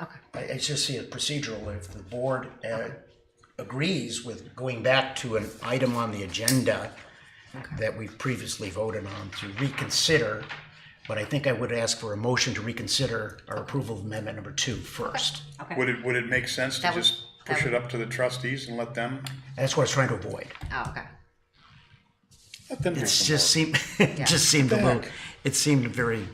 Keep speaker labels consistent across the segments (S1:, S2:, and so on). S1: I, I just see it procedural, if the board uh, agrees with going back to an item on the agenda that we've previously voted on to reconsider, but I think I would ask for a motion to reconsider our approval of amendment number two first.
S2: Okay.
S3: Would it, would it make sense to
S2: That would-
S3: just
S2: that
S3: push
S2: would-
S3: it up to the trustees and let them,
S1: That's what I was trying to avoid.
S2: Oh, okay.
S3: let them do
S1: It's
S3: some
S1: just
S3: work?
S1: seemed, it just seemed a little, it seemed very,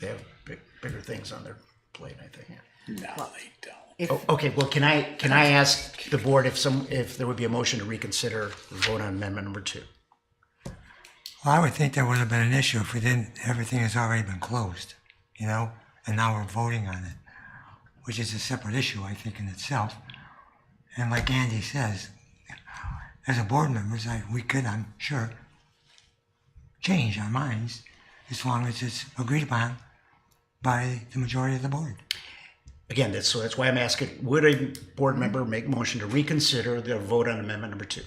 S1: they have big, bigger things on their plate, I think.
S3: No, they don't.
S1: Oh, Okay, well, can I, can I ask the board if some, if there would be a motion to reconsider the vote on amendment number two?
S4: Well, I would think that would have been an issue if we didn't, everything has already been closed, you know, and now we're voting on it, which is a separate issue, I think, in itself. And like Andy says, as a board member, it's like, we could, I'm sure, change our minds as long as it's agreed upon by the majority of the board.
S1: Again, that's, so that's why I'm asking, would a board member make motion to reconsider their vote on amendment number two?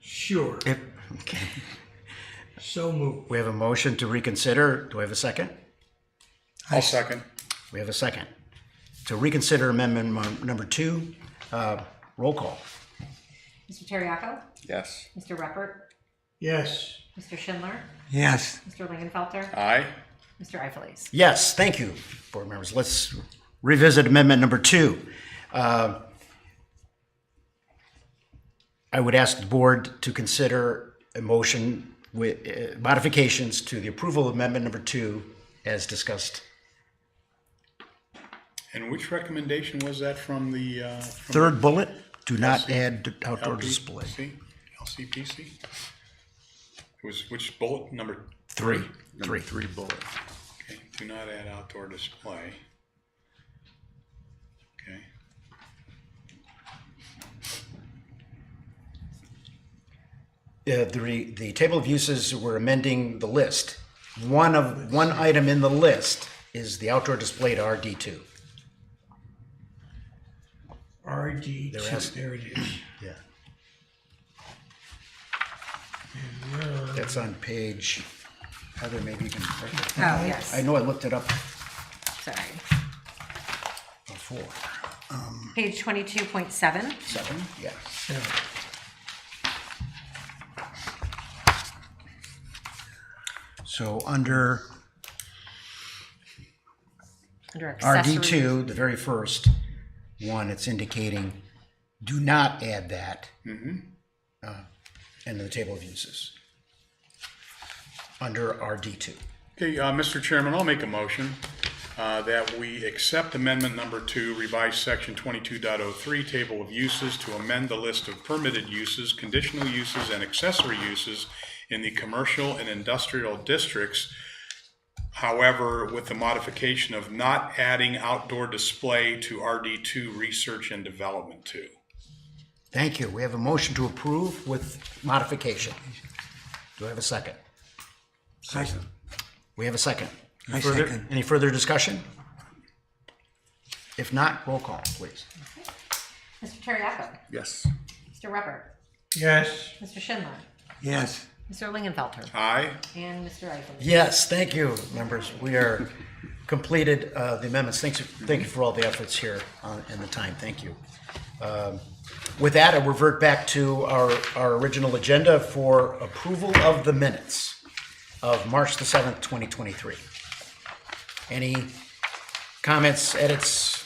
S5: Sure,
S1: If, okay,
S5: so moved.
S1: we have a motion to reconsider, do I have a second?
S3: I'll second.
S1: We have a second. To reconsider amendment mon- number two, uh, roll call.
S2: Mr. Terriaco,
S3: Yes.
S2: Mr. Reppert,
S5: Yes,
S2: Mr. Schindler,
S4: Yes,
S2: Mr. Lingenfelter,
S3: Aye.
S2: Mr. Eiffelise.
S1: Yes, thank you, board members. Let's revisit amendment number two. Uh, I would ask the board to consider a motion with uh, modifications to the approval of amendment number two as discussed.
S3: And which recommendation was that from the, uh, from
S1: Third bullet, do not add outdoor display.
S3: LPC? LCPC? It was, which bullet, number,
S1: Three, three.
S6: Three bullet.
S3: okay, do not add outdoor display. Okay.
S1: Uh, the, re- the table of uses, we're amending the list. One of, one item in the list is the outdoor display to RD two.
S5: RD two,
S1: There has-
S5: E there it is.
S1: Yeah.
S5: Where are-
S1: That's on page, Heather, maybe you can.
S2: Oh, yes.
S1: I know I looked it up
S2: Sorry.
S1: before.
S2: Page 22.7.
S1: Seven, yeah.
S5: yeah.
S1: So under
S2: Under accessory.
S1: RD two, the very first one, it's indicating, do not add that. uh, Into the table of uses. Under RD two.
S3: Okay, uh, Mr. Chairman, I'll make a motion uh, that we accept amendment number two, revised section 22.03, table of uses, to amend the list of permitted uses, conditional uses, and accessory uses in the commercial and industrial districts. However, with the modification of not adding outdoor display to RD2 research and development two.
S1: Thank you. We have a motion to approve with modification. Do I have a second?
S4: I,
S1: We have a second.
S4: I
S1: Further-
S4: second.
S1: Any further discussion? If not, roll call, please.
S2: Mr. Terriaco,
S6: Yes.
S2: Mr. Reppert,
S5: Yes,
S2: Mr. Schindler,
S4: Yes,
S2: Mr. Lingenfelter,
S3: Aye?
S2: and Mr. Eiffelise.
S1: Yes, thank you, members. We are completed uh, the amendments. Thanks, thank you for all the efforts here uh, and the time. Thank you. Um, With that, I revert back to our, our original agenda for approval of the minutes of March the 7th, 2023. Any comments, edits,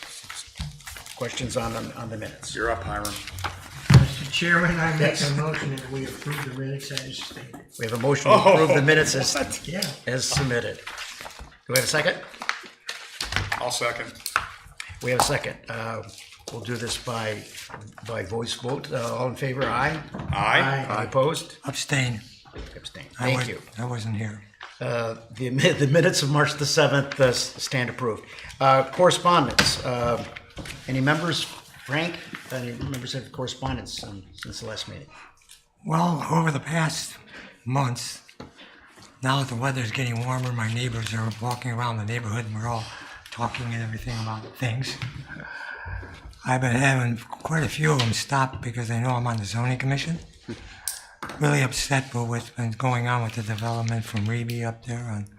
S1: questions on, on the minutes?
S3: You're up, Hiram.
S5: Mr. Chairman, I make a motion that we approve the minutes as stated.
S1: We have a motion to approve the
S3: Oh,
S1: minutes as,
S5: Yeah,
S1: as submitted. Do we have a second?
S3: I'll second.
S1: We have a second. Uh, We'll do this by, by voice vote. Uh, All in favor, aye?
S3: Aye?
S1: Aye. Opposed?
S4: abstain.
S1: Abstain.
S4: I
S1: Thank
S4: wa-
S1: you.
S4: I wasn't here.
S1: Uh, The mi- the minutes of March the 7th uh, s- stand approved. Uh, Correspondence. uh, Any members, Frank, any members have correspondence um, since the last meeting?
S4: Well, over the past months, now that the weather's getting warmer, my neighbors are walking around the neighborhood and we're all talking and everything about things. I've been having quite a few of them stop because they know I'm on the zoning commission. Really upset with what's been going on with the development from Reby up there on